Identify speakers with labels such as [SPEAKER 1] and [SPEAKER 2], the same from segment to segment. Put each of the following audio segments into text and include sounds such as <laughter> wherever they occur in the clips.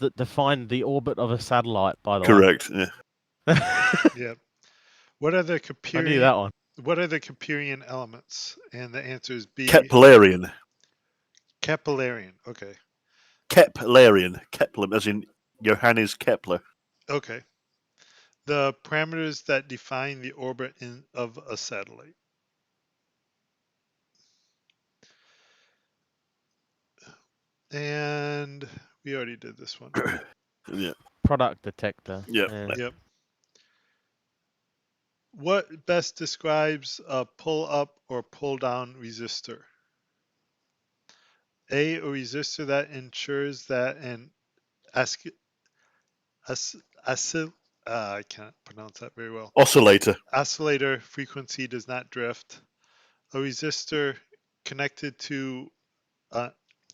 [SPEAKER 1] that define the orbit of a satellite. By the
[SPEAKER 2] Correct. Yeah.
[SPEAKER 1] way, <laughs>
[SPEAKER 3] yeah. What are the
[SPEAKER 1] I knew
[SPEAKER 3] Capurian?
[SPEAKER 1] that one.
[SPEAKER 3] What are the Capurian elements? And the answer is B.
[SPEAKER 2] Keplerian.
[SPEAKER 3] Capillarian. Okay.
[SPEAKER 2] Keplerian. Kepler, as in Johannes Kepler.
[SPEAKER 3] Okay. The parameters that define the orbit in, of a satellite. And we already did this one.
[SPEAKER 2] Yeah.
[SPEAKER 1] Product detector.
[SPEAKER 2] Yep.
[SPEAKER 1] Yeah.
[SPEAKER 3] yep. What best describes a pull up or pull down resistor? A, a resistor that ensures that an asc- as- oscill- uh, I can't pronounce that very well.
[SPEAKER 2] Oscillator.
[SPEAKER 3] Oscillator frequency does not drift. A resistor connected to uh,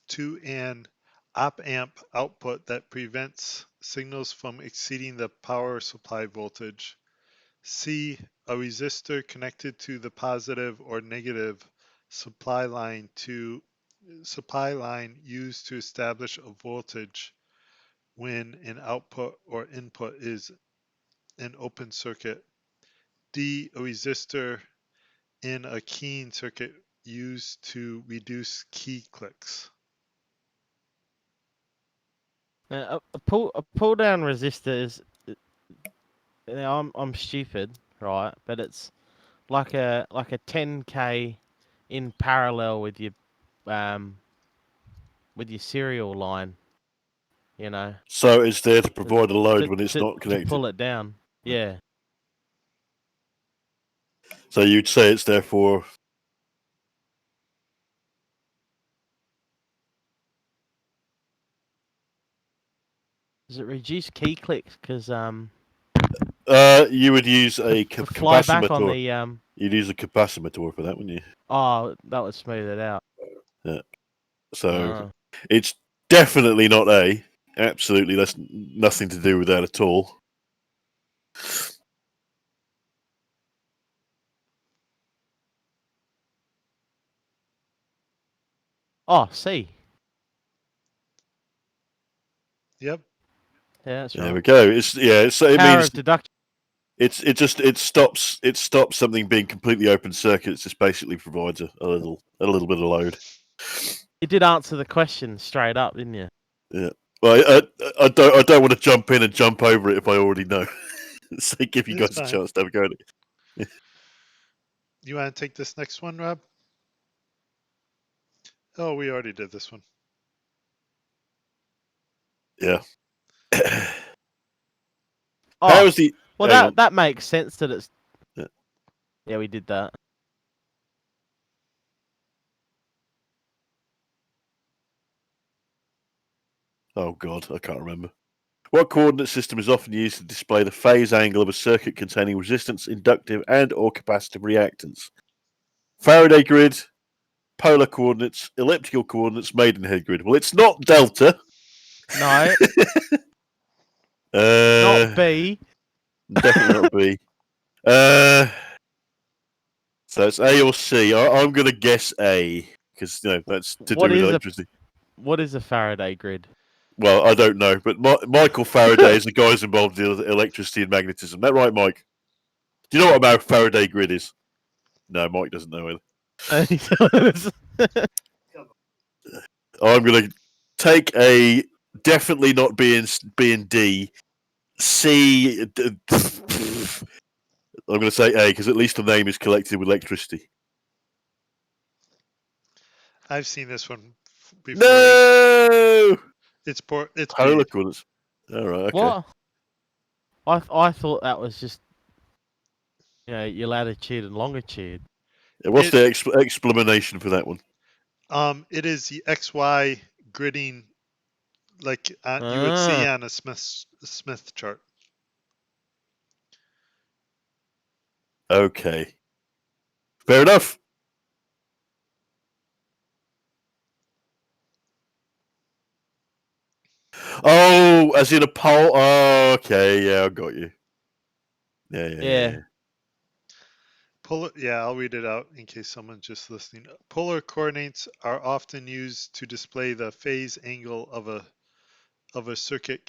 [SPEAKER 3] to an op amp output that prevents signals from exceeding the power supply voltage. C. A resistor connected to the positive or negative supply line to supply line used to establish a voltage when an output or input is an open circuit. D. A resistor in a keying circuit used to reduce key clicks.
[SPEAKER 1] Now, a, a pull a pull down resistor is. it- Now I'm I'm stupid, right? But it's like a like a 10k in parallel with your um with your serial line. You know,
[SPEAKER 2] So it's there to provide a load
[SPEAKER 1] to-
[SPEAKER 2] when it's
[SPEAKER 1] to-
[SPEAKER 2] not
[SPEAKER 1] to
[SPEAKER 2] connected.
[SPEAKER 1] pull it down. Yeah,
[SPEAKER 2] So you'd say it's there for
[SPEAKER 1] does it reduce key clicks? Because um,
[SPEAKER 2] Uh, you would use a
[SPEAKER 1] to
[SPEAKER 2] ca-
[SPEAKER 1] fly back on
[SPEAKER 2] capacitor.
[SPEAKER 1] the um.
[SPEAKER 2] You'd use a capacitor for that, wouldn't you?
[SPEAKER 1] Oh, that would smooth it out.
[SPEAKER 2] So
[SPEAKER 1] Ah.
[SPEAKER 2] it's definitely not A. Absolutely, that's n- nothing to do with that at all.
[SPEAKER 1] Oh, C.
[SPEAKER 3] Yep.
[SPEAKER 1] Yeah, that's
[SPEAKER 2] There
[SPEAKER 1] right.
[SPEAKER 2] we go. It's yeah. So it
[SPEAKER 1] Power
[SPEAKER 2] means
[SPEAKER 1] of deduction.
[SPEAKER 2] it's it just it stops it stops something being completely open circuit. It just basically provides a, a little a little bit of load.
[SPEAKER 1] You did answer the question straight up, didn't you?
[SPEAKER 2] Well, I, uh, I, I don't I don't want to jump in and jump over it if I already know. <laughs> so give you
[SPEAKER 3] It's
[SPEAKER 2] guys a
[SPEAKER 3] fine.
[SPEAKER 2] chance to have a go at it.
[SPEAKER 3] You want to take this next one, Rob? Oh, we already did this one.
[SPEAKER 1] Oh,
[SPEAKER 2] How is the
[SPEAKER 1] well,
[SPEAKER 2] hang
[SPEAKER 1] that
[SPEAKER 2] on.
[SPEAKER 1] that makes sense that it's.
[SPEAKER 2] Yeah.
[SPEAKER 1] Yeah, we did that.
[SPEAKER 2] Oh god, I can't remember. What coordinate system is often used to display the phase angle of a circuit containing resistance, inductive and or capacitive reactance? Faraday grid, polar coordinates, elliptical coordinates, Maidenhead grid. Well, it's not delta. <laughs>
[SPEAKER 1] No,
[SPEAKER 2] Uh,
[SPEAKER 1] not B.
[SPEAKER 2] definitely not B. <laughs> Uh, so it's A or C. I, I'm going to guess A because you know that's to
[SPEAKER 1] What
[SPEAKER 2] do with
[SPEAKER 1] is a-
[SPEAKER 2] electricity.
[SPEAKER 1] What is a Faraday grid? <laughs>
[SPEAKER 2] Well, I don't know, but Mi- Michael Faraday is the guy who's involved in el- electricity and magnetism. That right, Mike? Do you know what about Faraday grid is? No, Mike doesn't know either. I'm going to take a definitely not being s- being D, C. d- <laughs> I'm going to say A because at least the name is collected with electricity.
[SPEAKER 3] I've seen this one f- before.
[SPEAKER 2] No,
[SPEAKER 3] It's por- it's B.
[SPEAKER 2] polar coordinates. All right, okay.
[SPEAKER 1] What? I th- I thought that was just, you know, your latitude and longitude.
[SPEAKER 2] What's
[SPEAKER 3] It-
[SPEAKER 2] the ex- explanation for that one?
[SPEAKER 3] Um, it is the XY gridding, like uh, you would see
[SPEAKER 1] Ah.
[SPEAKER 3] on a Smith Smith chart.
[SPEAKER 2] Okay. Fair enough. Oh, as in a pole. Oh, okay. Yeah, I got you. Yeah, yeah, yeah.
[SPEAKER 1] Yeah.
[SPEAKER 2] yeah.
[SPEAKER 3] Polar, yeah, I'll read it out in case someone's just listening. Polar coordinates are often used to display the phase angle of a of a circuit